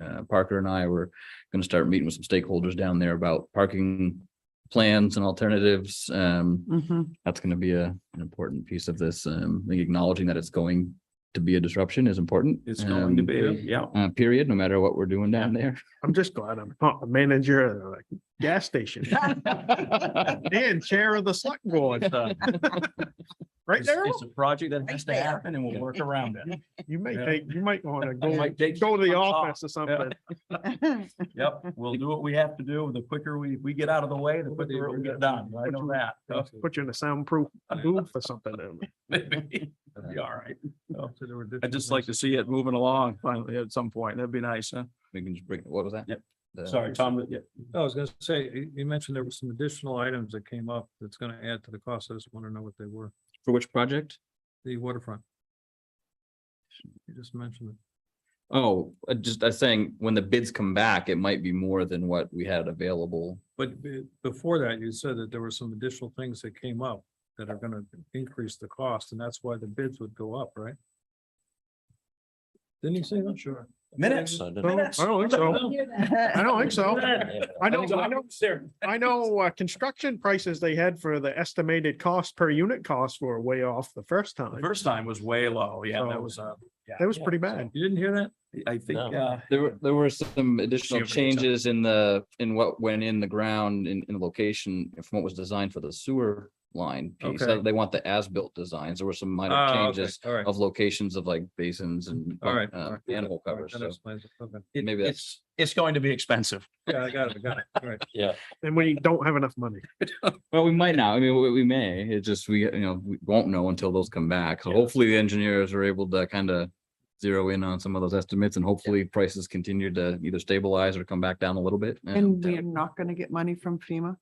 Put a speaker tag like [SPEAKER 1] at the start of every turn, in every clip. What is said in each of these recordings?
[SPEAKER 1] uh, Parker and I were gonna start meeting with some stakeholders down there about parking plans and alternatives. Um,
[SPEAKER 2] Mhm.
[SPEAKER 1] that's gonna be a, an important piece of this. Um, I think acknowledging that it's going to be a disruption is important.
[SPEAKER 3] It's going to
[SPEAKER 1] um,
[SPEAKER 3] be, yeah.
[SPEAKER 1] Uh, period, no matter what we're doing down there.
[SPEAKER 4] I'm just glad I'm not a manager at a gas station and chair of the select board. Right
[SPEAKER 3] It's
[SPEAKER 4] there,
[SPEAKER 3] uh, it's a project that has to
[SPEAKER 2] there.
[SPEAKER 3] happen and we'll work around it.
[SPEAKER 4] you may
[SPEAKER 3] Yeah. uh,
[SPEAKER 4] take, you might want to go,
[SPEAKER 3] Might take
[SPEAKER 4] go to the
[SPEAKER 3] some time.
[SPEAKER 4] office or something.
[SPEAKER 3] Yep, we'll do what we have to do. The quicker we, we get out of the way, the quicker it'll get done. I know that. So,
[SPEAKER 4] Put you in a soundproof booth or something.
[SPEAKER 3] maybe it'll Be all right. I'd just like to see it moving along finally at some point. That'd be nice, huh?
[SPEAKER 1] We can just bring, what was that?
[SPEAKER 3] Yep.
[SPEAKER 1] The-
[SPEAKER 3] Sorry, Tom. yeah.
[SPEAKER 5] Oh, I was gonna say, you, you mentioned there were some additional items that came up that's gonna add to the cost. I just wanna know what they were.
[SPEAKER 1] For which project?
[SPEAKER 5] The waterfront. You just mentioned it.
[SPEAKER 1] Oh, uh, just, I was saying, when the bids come back, it might be more than what we had available.
[SPEAKER 5] But be- before that, you said that there were some additional things that came up that are gonna increase the cost, and that's why the bids would go up, right? Didn't you say that? Sure.
[SPEAKER 3] Minutes.
[SPEAKER 4] No, I don't think so. I don't think so. I know, I know, I know, uh, construction prices they had for the estimated cost per unit costs were way off the first
[SPEAKER 3] The
[SPEAKER 4] time.
[SPEAKER 3] first time was way low. Yeah, that
[SPEAKER 4] So-
[SPEAKER 3] was, uh, yeah.
[SPEAKER 4] That was pretty bad.
[SPEAKER 5] You didn't hear that?
[SPEAKER 3] I think,
[SPEAKER 6] No.
[SPEAKER 3] uh,
[SPEAKER 1] There were, there were some additional
[SPEAKER 3] Super good job.
[SPEAKER 1] changes in the, in what went in the ground in, in location from what was designed for the sewer line piece. Uh,
[SPEAKER 5] Okay.
[SPEAKER 1] They want the as-built designs. There were some minor
[SPEAKER 5] Ah, okay,
[SPEAKER 1] changes
[SPEAKER 5] All right,
[SPEAKER 1] of locations of like basins and
[SPEAKER 5] all right. all
[SPEAKER 1] uh,
[SPEAKER 5] right,
[SPEAKER 1] animal
[SPEAKER 5] all right,
[SPEAKER 1] covers.
[SPEAKER 5] that
[SPEAKER 1] So
[SPEAKER 5] explains it, okay.
[SPEAKER 3] it-
[SPEAKER 1] Maybe
[SPEAKER 3] it's, it's going to be expensive.
[SPEAKER 5] Yeah, I got it, I got it, all right.
[SPEAKER 4] And we don't have enough money.
[SPEAKER 1] Well, we might not. I mean, we, we may. It's just, we, you know, we won't know until those come back. So hopefully the engineers are able to kind of zero in on some of those estimates and hopefully prices continue to either stabilize or come back down a little bit.
[SPEAKER 2] And we are not gonna get money from FEMA.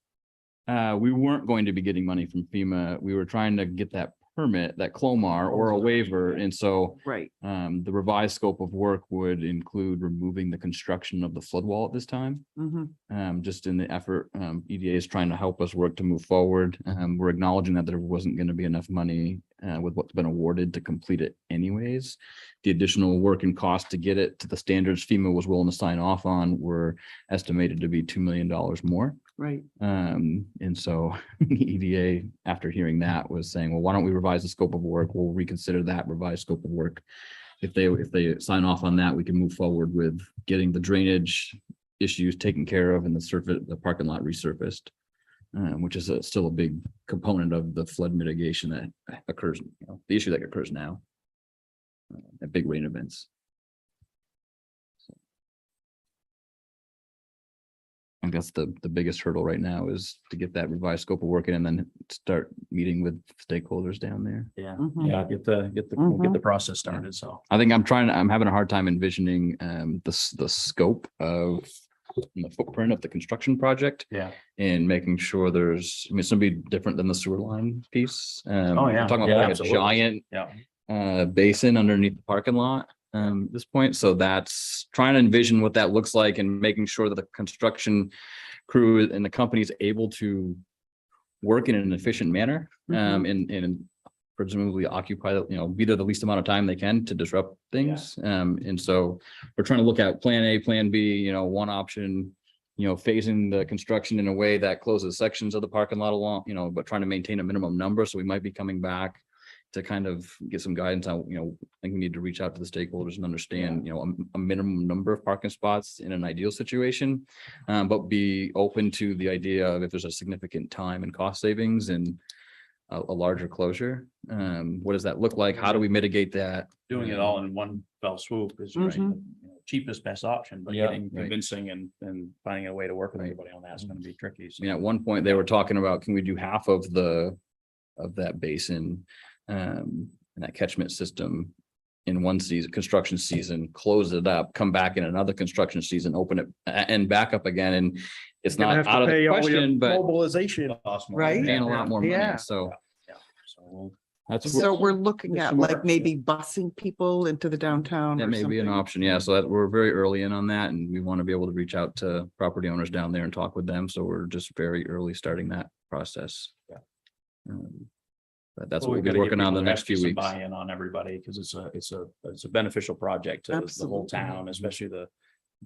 [SPEAKER 1] Uh, we weren't going to be getting money from FEMA. We were trying to get that permit, that Clomar or a waiver. And so
[SPEAKER 2] Right.
[SPEAKER 1] um, the revised scope of work would include removing the construction of the flood wall at this time
[SPEAKER 2] Mhm.
[SPEAKER 1] um, just in the effort, um, EDA is trying to help us work to move forward. Um, we're acknowledging that there wasn't going to be enough money uh, with what's been awarded to complete it anyways. The additional work and cost to get it to the standards FEMA was willing to sign off on were estimated to be two million dollars more.
[SPEAKER 2] Right.
[SPEAKER 1] Um, and so EDA, after hearing that, was saying, well, why don't we revise the scope of work? We'll reconsider that revised scope of work. If they, if they sign off on that, we can move forward with getting the drainage issues taken care of and the surface, the parking lot resurfaced. Um, which is a- still a big component of the flood mitigation that occurs, you know, the issue that occurs now. uh, At big rain events. I think that's the, the biggest hurdle right now is to get that revised scope of work in and then start meeting with stakeholders down there.
[SPEAKER 3] Yeah.
[SPEAKER 2] Mhm.
[SPEAKER 3] Yeah, get the, get the, we'll
[SPEAKER 2] Mm-hmm.
[SPEAKER 3] get the process started, so.
[SPEAKER 1] I think I'm trying, I'm having a hard time envisioning um the s- the scope of the footprint of the construction project.
[SPEAKER 3] Yeah.
[SPEAKER 1] And making sure there's, I mean, it's gonna be different than the sewer line piece. Um,
[SPEAKER 3] Oh,
[SPEAKER 1] we're
[SPEAKER 3] yeah.
[SPEAKER 1] Talking
[SPEAKER 3] Yeah,
[SPEAKER 1] about like a
[SPEAKER 3] absolutely.
[SPEAKER 1] giant.
[SPEAKER 3] Yeah.
[SPEAKER 1] Uh, basin underneath the parking lot um at this point, so that's trying to envision what that looks like and making sure that the construction crew and the company is able to work in an efficient manner um and and presumably occupy, the- you know, be there the least amount of time they can to disrupt things. Um, and so we're trying to look at plan A, plan B, you know, one option, you know, phasing the construction in a way that closes sections of the parking lot along, you know, but trying to maintain a minimum number. So we might be coming back to kind of get some guidance on, you know, I think we need to reach out to the stakeholders and understand, you know, a, a minimum number of parking spots in an ideal situation. Um, but be open to the idea of if there's a significant time and cost savings and a, a larger closure. Um, what does that look like? How do we mitigate that?
[SPEAKER 3] doing it all in one fell swoop is right,
[SPEAKER 2] Mhm.
[SPEAKER 3] the you know, cheapest, best option, but
[SPEAKER 6] Yeah.
[SPEAKER 3] getting
[SPEAKER 1] Right.
[SPEAKER 3] convincing and, and finding a way to work with
[SPEAKER 1] Right. Mm-hmm.
[SPEAKER 3] everybody on that is gonna be tricky.
[SPEAKER 1] I
[SPEAKER 3] so.
[SPEAKER 1] mean, at one point, they were talking about, can we do half of the, of that basin? Um, and that catchment system in one season, construction season, close it up, come back in another construction season, open it a- and back up again, and it's
[SPEAKER 4] You're
[SPEAKER 1] not
[SPEAKER 4] gonna have to
[SPEAKER 1] out of the
[SPEAKER 4] pay all your
[SPEAKER 1] question, but
[SPEAKER 4] Mobilization.
[SPEAKER 3] Awesome.
[SPEAKER 2] Right?
[SPEAKER 1] paying a lot more money,
[SPEAKER 2] Yeah.
[SPEAKER 1] so
[SPEAKER 3] So we'll-
[SPEAKER 1] that's.
[SPEAKER 2] So we're looking
[SPEAKER 3] There's
[SPEAKER 2] at
[SPEAKER 3] some
[SPEAKER 2] like
[SPEAKER 3] more-
[SPEAKER 2] maybe busing people into the downtown
[SPEAKER 1] That
[SPEAKER 2] or
[SPEAKER 1] may be an
[SPEAKER 2] something.
[SPEAKER 1] option, yeah. So that, we're very early in on that and we want to be able to reach out to property owners down there and talk with them. So we're just very early starting that process.
[SPEAKER 3] Yeah.
[SPEAKER 1] Um, But that's
[SPEAKER 3] Well,
[SPEAKER 1] what
[SPEAKER 3] we
[SPEAKER 1] we'll be
[SPEAKER 3] gotta get
[SPEAKER 1] working on
[SPEAKER 3] people
[SPEAKER 1] the
[SPEAKER 3] to
[SPEAKER 1] next
[SPEAKER 3] actually
[SPEAKER 1] few
[SPEAKER 3] some
[SPEAKER 1] weeks.
[SPEAKER 3] Buy-in on everybody, because it's a, it's a, it's a beneficial project to the whole
[SPEAKER 2] Absolutely.
[SPEAKER 3] town, especially the,